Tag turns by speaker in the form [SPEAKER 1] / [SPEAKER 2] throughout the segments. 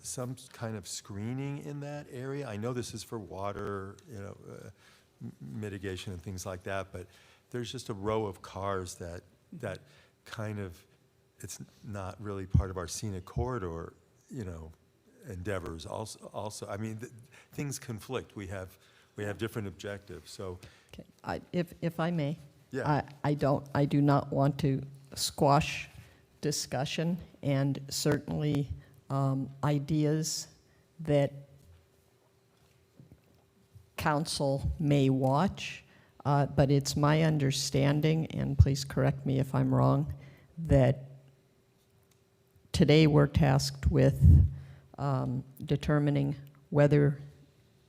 [SPEAKER 1] some kind of screening in that area? I know this is for water, you know, uh, m- mitigation and things like that, but there's just a row of cars that, that kind of, it's not really part of our scenic corridor, you know, endeavors also, also, I mean, th- things conflict. We have, we have different objectives, so,
[SPEAKER 2] Okay, I- If, if I may.
[SPEAKER 1] Yeah.
[SPEAKER 2] I- I don't, I do not want to squash discussion, and certainly um, ideas that council may watch, uh, but it's my understanding, and please correct me if I'm wrong, that today we're tasked with um, determining whether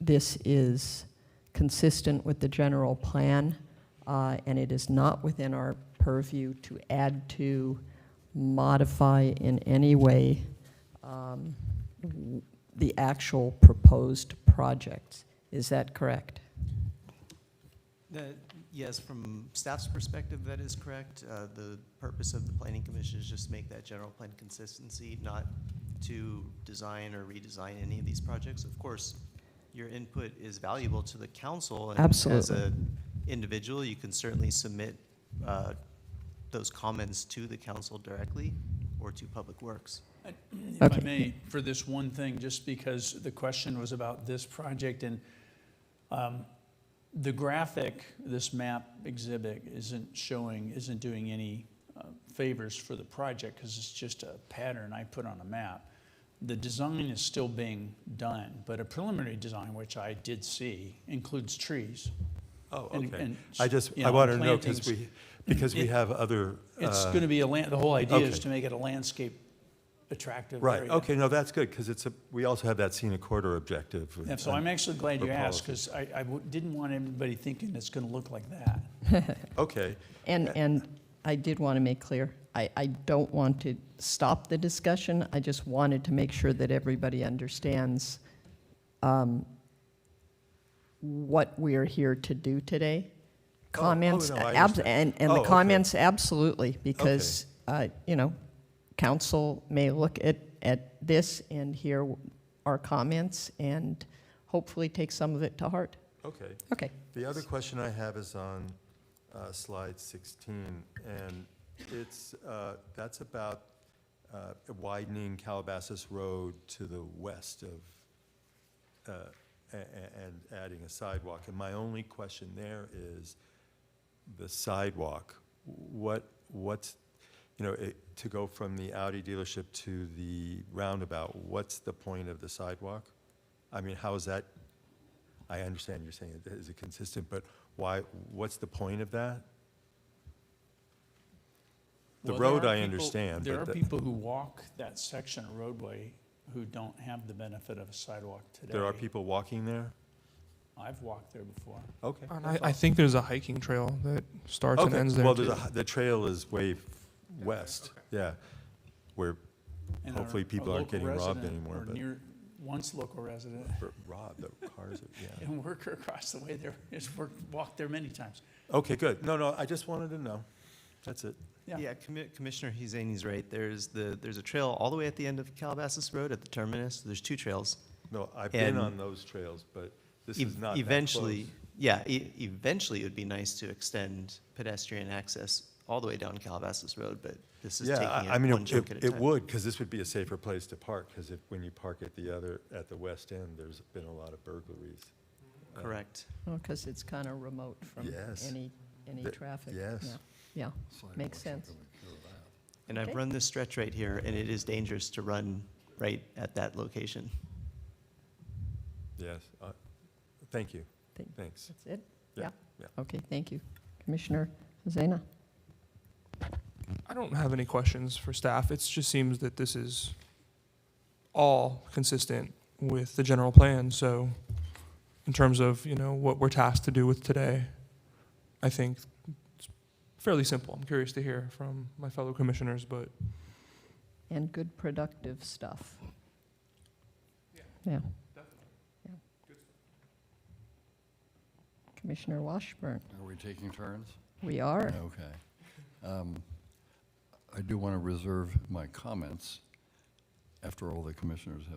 [SPEAKER 2] this is consistent with the general plan, uh, and it is not within our purview to add to, modify in any way um, w- the actual proposed projects. Is that correct?
[SPEAKER 3] That- Yes, from staff's perspective, that is correct. Uh, The purpose of the planning commission is just to make that general plan consistency, not to design or redesign any of these projects. Of course, your input is valuable to the council. and As
[SPEAKER 2] Absolutely.
[SPEAKER 3] an individual, you can certainly submit uh, those comments to the council directly or to Public Works.
[SPEAKER 4] If I
[SPEAKER 2] Okay.
[SPEAKER 4] may, for this one thing, just because the question was about this project and um, the graphic, this map exhibit isn't showing, isn't doing any uh, favors for the project because it's just a pattern I put on a map. The design is still being done, but a preliminary design, which I did see, includes trees.
[SPEAKER 1] oh,
[SPEAKER 4] And-
[SPEAKER 1] okay.
[SPEAKER 4] and,
[SPEAKER 1] I just,
[SPEAKER 4] you
[SPEAKER 1] I
[SPEAKER 4] know,
[SPEAKER 1] want to know, because
[SPEAKER 4] plantings.
[SPEAKER 1] we, because we
[SPEAKER 4] It-
[SPEAKER 1] have other.
[SPEAKER 4] It's
[SPEAKER 1] uh,
[SPEAKER 4] going to be a land, the whole idea
[SPEAKER 1] okay.
[SPEAKER 4] is to make it a landscape attractive area.
[SPEAKER 1] Right, okay, no, that's good, because it's a, we also have that scenic corridor objective.
[SPEAKER 4] Yeah, so I'm actually glad
[SPEAKER 1] for
[SPEAKER 4] you asked,
[SPEAKER 1] policy.
[SPEAKER 4] because I, I w- didn't want anybody thinking it's gonna look like that.
[SPEAKER 1] Okay,
[SPEAKER 2] And, and I did want to make clear, I, I don't want to stop the discussion. I just wanted to make sure that everybody understands um, what we're here to do today.
[SPEAKER 1] Oh, oh,
[SPEAKER 2] Comments,
[SPEAKER 1] no, I
[SPEAKER 2] abs- and,
[SPEAKER 1] understand.
[SPEAKER 2] and
[SPEAKER 1] Oh,
[SPEAKER 2] the
[SPEAKER 1] okay.
[SPEAKER 2] comments, absolutely, because, uh, you know, council may look at, at this and hear our comments and hopefully take some of it to heart.
[SPEAKER 1] okay.
[SPEAKER 2] Okay.
[SPEAKER 1] The other question I have is on uh, slide 16, and it's, uh, that's about uh, widening Calabasas Road to the west of, uh, a- a- and adding a sidewalk. And my only question there is the sidewalk. What, what's, you know, it- to go from the Audi dealership to the roundabout, what's the point of the sidewalk? I mean, how is that I understand you're saying it is consistent, but why, what's the point of that? The
[SPEAKER 4] Well, there
[SPEAKER 1] road
[SPEAKER 4] are
[SPEAKER 1] I
[SPEAKER 4] people-
[SPEAKER 1] understand,
[SPEAKER 4] There are
[SPEAKER 1] but, the-
[SPEAKER 4] people who walk that section of roadway who don't have the benefit of a sidewalk today.
[SPEAKER 1] there are people walking there?
[SPEAKER 4] I've walked there before.
[SPEAKER 1] Okay.
[SPEAKER 2] Oh,
[SPEAKER 5] And I,
[SPEAKER 1] that's
[SPEAKER 5] I
[SPEAKER 1] all.
[SPEAKER 5] think there's a hiking trail that starts and ends
[SPEAKER 1] Okay,
[SPEAKER 5] there.
[SPEAKER 1] well,
[SPEAKER 5] too.
[SPEAKER 1] there's a, the trail is way f- west, yeah, where,
[SPEAKER 4] and our-
[SPEAKER 1] Hopefully
[SPEAKER 4] a
[SPEAKER 1] people aren't
[SPEAKER 4] local
[SPEAKER 1] getting robbed
[SPEAKER 4] resident
[SPEAKER 1] anymore,
[SPEAKER 4] or
[SPEAKER 1] but-
[SPEAKER 4] near- Once local resident
[SPEAKER 1] where Rob, the cars, are- yeah.
[SPEAKER 4] and worker across the way there, has worked, walked there many times.
[SPEAKER 1] Okay, good. No, no, I just wanted to know. That's it.
[SPEAKER 4] Yeah.
[SPEAKER 3] Yeah, Commi- Commissioner Husseini's right. There's the, there's a trail all the way at the end of Calabasas Road at the terminus. There's two trails.
[SPEAKER 1] No, I've been
[SPEAKER 3] And-
[SPEAKER 1] on those trails, but this
[SPEAKER 3] Ev-
[SPEAKER 1] is not that
[SPEAKER 3] E Eventually,
[SPEAKER 1] close.
[SPEAKER 3] yeah, e- eventually it would be nice to extend pedestrian access all the way down Calabasas Road, but this is
[SPEAKER 1] Yeah,
[SPEAKER 3] taking
[SPEAKER 1] I- I
[SPEAKER 3] it
[SPEAKER 1] mean,
[SPEAKER 3] one
[SPEAKER 1] it-
[SPEAKER 3] chunk at a
[SPEAKER 1] it,
[SPEAKER 3] time.
[SPEAKER 1] it would, because this would be a safer place to park, because if, when you park at the other, at the west end, there's been a lot of burglaries. Uh,
[SPEAKER 3] Correct.
[SPEAKER 2] Because it's kind of remote from
[SPEAKER 1] Yes.
[SPEAKER 2] any, any
[SPEAKER 1] The-
[SPEAKER 2] traffic.
[SPEAKER 1] yes.
[SPEAKER 2] Yeah. Yeah, makes sense.
[SPEAKER 3] And I've
[SPEAKER 2] Okay.
[SPEAKER 3] run this stretch right here, and it is dangerous to run right at that location.
[SPEAKER 1] Yes, uh, thank you,
[SPEAKER 2] Thank-
[SPEAKER 1] thanks.
[SPEAKER 2] That's it?
[SPEAKER 1] Yeah, yeah.
[SPEAKER 2] Okay, thank you. Commissioner Zena?
[SPEAKER 5] I don't have any questions for staff. It just seems that this is all consistent with the general plan. So, in terms of you know what we're tasked to do with today, I think it's fairly simple. I'm curious to hear from my fellow commissioners, but
[SPEAKER 2] And good productive stuff. Yeah. Yeah. Commissioner Washburn,
[SPEAKER 6] Are we taking turns?
[SPEAKER 2] we are.
[SPEAKER 6] Okay. Um, I do want to reserve my comments after all the commissioners have